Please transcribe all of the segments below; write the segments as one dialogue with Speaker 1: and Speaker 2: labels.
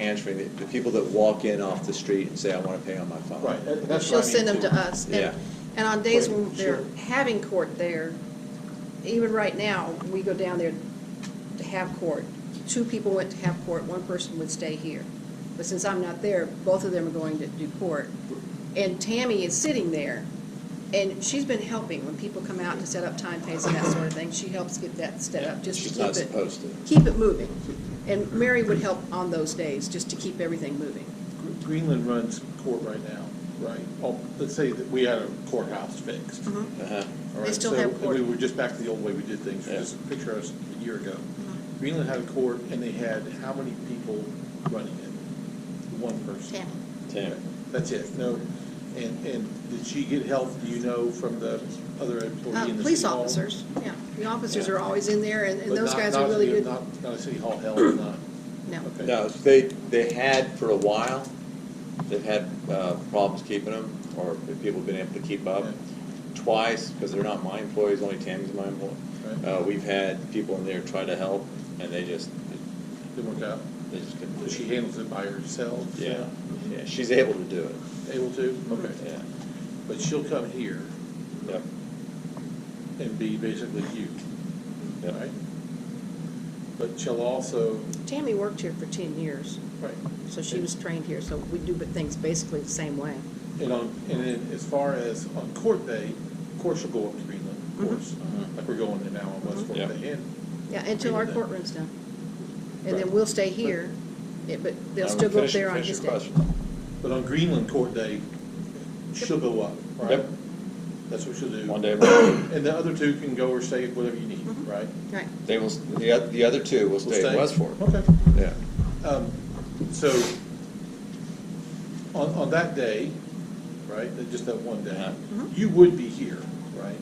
Speaker 1: answering, the- the people that walk in off the street and say, I want to pay on my phone.
Speaker 2: Right, that- that's
Speaker 3: She'll
Speaker 2: what I mean,
Speaker 3: send them to
Speaker 2: too.
Speaker 3: us. And-
Speaker 1: Yeah.
Speaker 3: And on days
Speaker 2: Right,
Speaker 3: when they're
Speaker 2: sure.
Speaker 3: having court there, even right now, we go down there to have court. Two people went to have court, one person would stay here. But since I'm not there, both of them are going to do court. And Tammy is sitting there, and she's been helping when people come out to set up time pays and that sort of thing. She helps get that set up, just to
Speaker 1: She's
Speaker 3: keep it.
Speaker 1: not supposed to.
Speaker 3: Keep it moving. And Mary would help on those days, just to keep everything moving.
Speaker 2: Gr- Greenland runs court right now, right? Oh, let's say that we had a courthouse fixed.
Speaker 1: Uh-huh.
Speaker 2: all
Speaker 3: Mm-hmm. They
Speaker 2: right?
Speaker 3: still
Speaker 2: So-
Speaker 3: have
Speaker 2: and
Speaker 3: court.
Speaker 2: We were just back to the old way we did things,
Speaker 1: Yeah.
Speaker 2: just picture us a year ago.
Speaker 3: Mm-hmm.
Speaker 2: Greenland had a court and they had how many people running it? One person.
Speaker 3: Tammy.
Speaker 1: Tammy.
Speaker 2: That's it, no, and, and did she get help, do you know, from the other employee in the
Speaker 3: Uh,
Speaker 2: city
Speaker 3: Police
Speaker 2: hall?
Speaker 3: officers, yeah. The officers
Speaker 1: Yeah.
Speaker 3: are always in there, and and
Speaker 2: But
Speaker 3: those
Speaker 2: not-
Speaker 3: guys
Speaker 2: not
Speaker 3: are really
Speaker 2: city-
Speaker 3: good.
Speaker 2: Not, not a city hall help, not,
Speaker 3: No.
Speaker 2: okay.
Speaker 1: No, they, they had for a while, they've had uh, problems keeping them, or if people have been able to keep up.
Speaker 2: Right.
Speaker 1: Twice, because they're not my employees, only Tammy's my employee.
Speaker 2: Right.
Speaker 1: Uh, We've had people in there try to help, and they just,
Speaker 2: Didn't work out,
Speaker 1: they just couldn't
Speaker 2: But she
Speaker 1: do it.
Speaker 2: handles it by herself?
Speaker 1: Yeah, yeah, she's able to do it,
Speaker 2: Able to, okay,
Speaker 1: yeah,
Speaker 2: but she'll come here
Speaker 1: yep,
Speaker 2: and be basically you,
Speaker 1: yep.
Speaker 2: right? But she'll also,
Speaker 3: Tammy worked here for 10 years,
Speaker 2: right,
Speaker 3: so she was trained here, so we do things basically the same way.
Speaker 2: and on, and then as far as on court day, of course she'll go up to Greenland, of course, like we're going to now on West
Speaker 1: Mm-hmm.
Speaker 2: Fork
Speaker 1: Yeah.
Speaker 2: Day, and
Speaker 3: Yeah, until our courtroom's done. And then we'll stay here, it- but they'll
Speaker 1: Now,
Speaker 3: still go up
Speaker 1: finish-
Speaker 3: there on
Speaker 1: finish
Speaker 3: his
Speaker 1: your
Speaker 3: day.
Speaker 1: question.
Speaker 2: But on Greenland court day, she'll go up, right?
Speaker 1: Yep.
Speaker 2: That's what she'll
Speaker 1: One
Speaker 2: do.
Speaker 1: day, a month.
Speaker 2: And the other two can go or stay at whatever you need,
Speaker 3: Mhm.
Speaker 2: right?
Speaker 3: Right.
Speaker 1: they will, the oth- the other two will
Speaker 2: We'll
Speaker 1: stay in Westport,
Speaker 2: Okay.
Speaker 1: yeah.
Speaker 2: Um, So, on, on that day, right, that- just that one day,
Speaker 1: Uh-huh.
Speaker 3: Mhm.
Speaker 2: you would be here, right?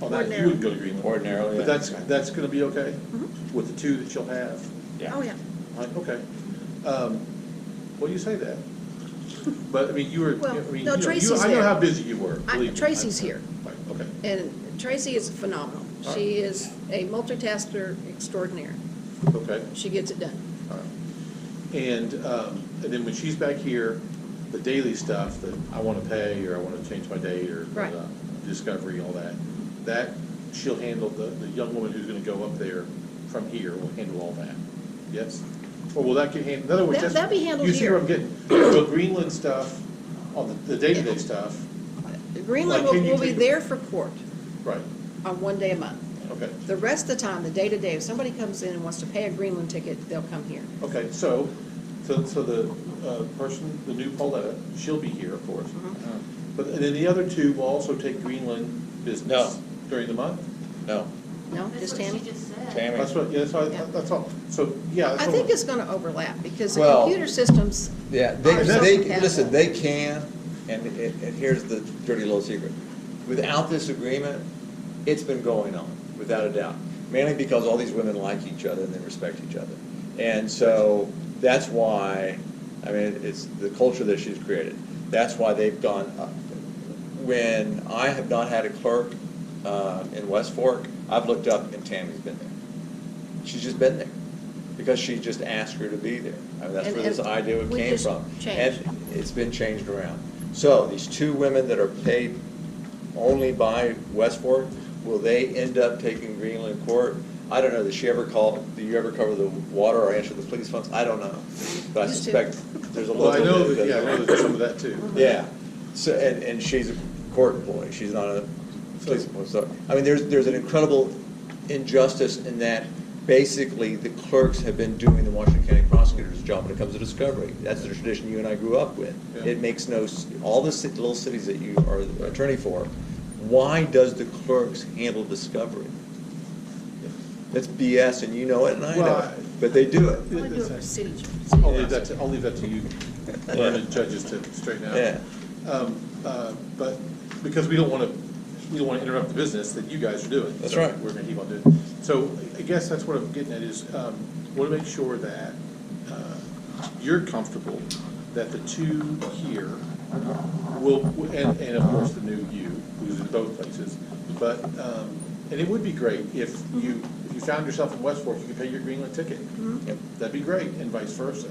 Speaker 2: On that, you would go to Greenland.
Speaker 1: Ordinarily, yeah.
Speaker 2: But that's, that's gonna be okay
Speaker 3: Mhm.
Speaker 2: with the two that you'll have?
Speaker 3: Oh, yeah.
Speaker 2: Right, okay. Um, Well, you say that, but I mean, you were, I
Speaker 3: Well,
Speaker 2: mean, you
Speaker 3: no,
Speaker 2: know, you-
Speaker 3: Tracy's
Speaker 2: I know
Speaker 3: there.
Speaker 2: how busy you were,
Speaker 3: I-
Speaker 2: believe me.
Speaker 3: Tracy's here.
Speaker 2: Right, okay.
Speaker 3: And Tracy is phenomenal.
Speaker 2: All
Speaker 3: She is a multitasker extraordinaire.
Speaker 2: Okay,
Speaker 3: She gets it done.
Speaker 2: all right. Um, And, um, and then when she's back here, the daily stuff that I want to pay, or I want to change my date, or
Speaker 3: Right.
Speaker 2: uh, discovery, all that, that, she'll handle, the, the young woman who's going to go up there from here will handle all that, yes? Or will that get handled, in other words,
Speaker 3: That-
Speaker 2: that's.
Speaker 3: that'll be handled
Speaker 2: You see where I'm
Speaker 3: here.
Speaker 2: getting, so Greenland stuff, on the, the day-to-day
Speaker 3: Yeah.
Speaker 2: stuff,
Speaker 3: Greenland will
Speaker 2: can you
Speaker 3: will be
Speaker 2: take-
Speaker 3: there for court
Speaker 2: right,
Speaker 3: on one day a month.
Speaker 2: okay.
Speaker 3: The rest of the time, the day-to-day, if somebody comes in and wants to pay a Greenland ticket, they'll come here.
Speaker 2: Okay, so, so, so the uh, person, the new Pauletta, she'll be here, of course.
Speaker 4: Mm-hmm.
Speaker 1: Oh,
Speaker 2: But, and then the other two will also take Greenland business
Speaker 1: No.
Speaker 2: during the month?
Speaker 1: No,
Speaker 3: No,
Speaker 4: That's
Speaker 3: just
Speaker 4: what she
Speaker 3: Tammy?
Speaker 4: just said.
Speaker 1: Tammy.
Speaker 2: That's what, yeah, that's all,
Speaker 3: Yeah.
Speaker 2: that's all, so, yeah. that's
Speaker 3: I
Speaker 2: all.
Speaker 3: think it's gonna overlap, because the
Speaker 1: Well-
Speaker 3: computer systems,
Speaker 1: Yeah, they,
Speaker 3: Ours
Speaker 1: they,
Speaker 3: doesn't have
Speaker 1: listen,
Speaker 3: that.
Speaker 1: they can, and, and and here's the dirty little secret. Without this agreement, it's been going on, without a doubt. Mainly because all these women like each other and they respect each other. And so, that's why, I mean, it's the culture that she's created. That's why they've gone up. When I have not had a clerk, uh, in West Fork, I've looked up and Tammy's been there. She's just been there, because she just asked her to be there. I mean, that's
Speaker 3: And-
Speaker 1: where this
Speaker 3: and
Speaker 1: idea
Speaker 3: we
Speaker 1: came
Speaker 3: just
Speaker 1: from.
Speaker 3: changed.
Speaker 1: And it's been changed around. So these two women that are paid only by West Fork, will they end up taking Greenland Court? I don't know, does she ever call, do you ever cover the water or answer the police phones? I don't know, but I
Speaker 3: Used to.
Speaker 1: suspect there's a
Speaker 2: Well,
Speaker 1: little
Speaker 2: I
Speaker 1: bit.
Speaker 2: know, that-
Speaker 1: that-
Speaker 2: yeah, I know there's some of that too.
Speaker 1: Yeah, so, and, and she's a court employee, she's not a police employee, so, I mean, there's, there's an incredible injustice in that basically the clerks have been doing the Washington County prosecutor's job when it comes to discovery. That's the tradition you and I grew up with.
Speaker 2: Yeah.
Speaker 1: It makes no, s- all the ci- little cities that you are attorney for, why does the clerks handle discovery? That's BS, and you know it, and I know
Speaker 2: Well, I-
Speaker 1: it, but they do it.
Speaker 3: I wanna do it for city.
Speaker 2: I'll leave that to, I'll leave that to you, learned judges to straighten out.
Speaker 1: Yeah.
Speaker 2: Um, uh, But, because we don't want to, we don't want to interrupt the business that you guys are doing.
Speaker 1: That's
Speaker 2: So
Speaker 1: right.
Speaker 2: We're going to keep on doing. it. So I guess that's what I'm getting at is, um, want to make sure that uh, you're comfortable that the two here will, and, and of course the new you, who's in both places, but, um, and it would be great if you, if you found yourself in West Fork, you could pay your Greenland ticket.
Speaker 1: Yep.
Speaker 2: That'd be great, and vice versa.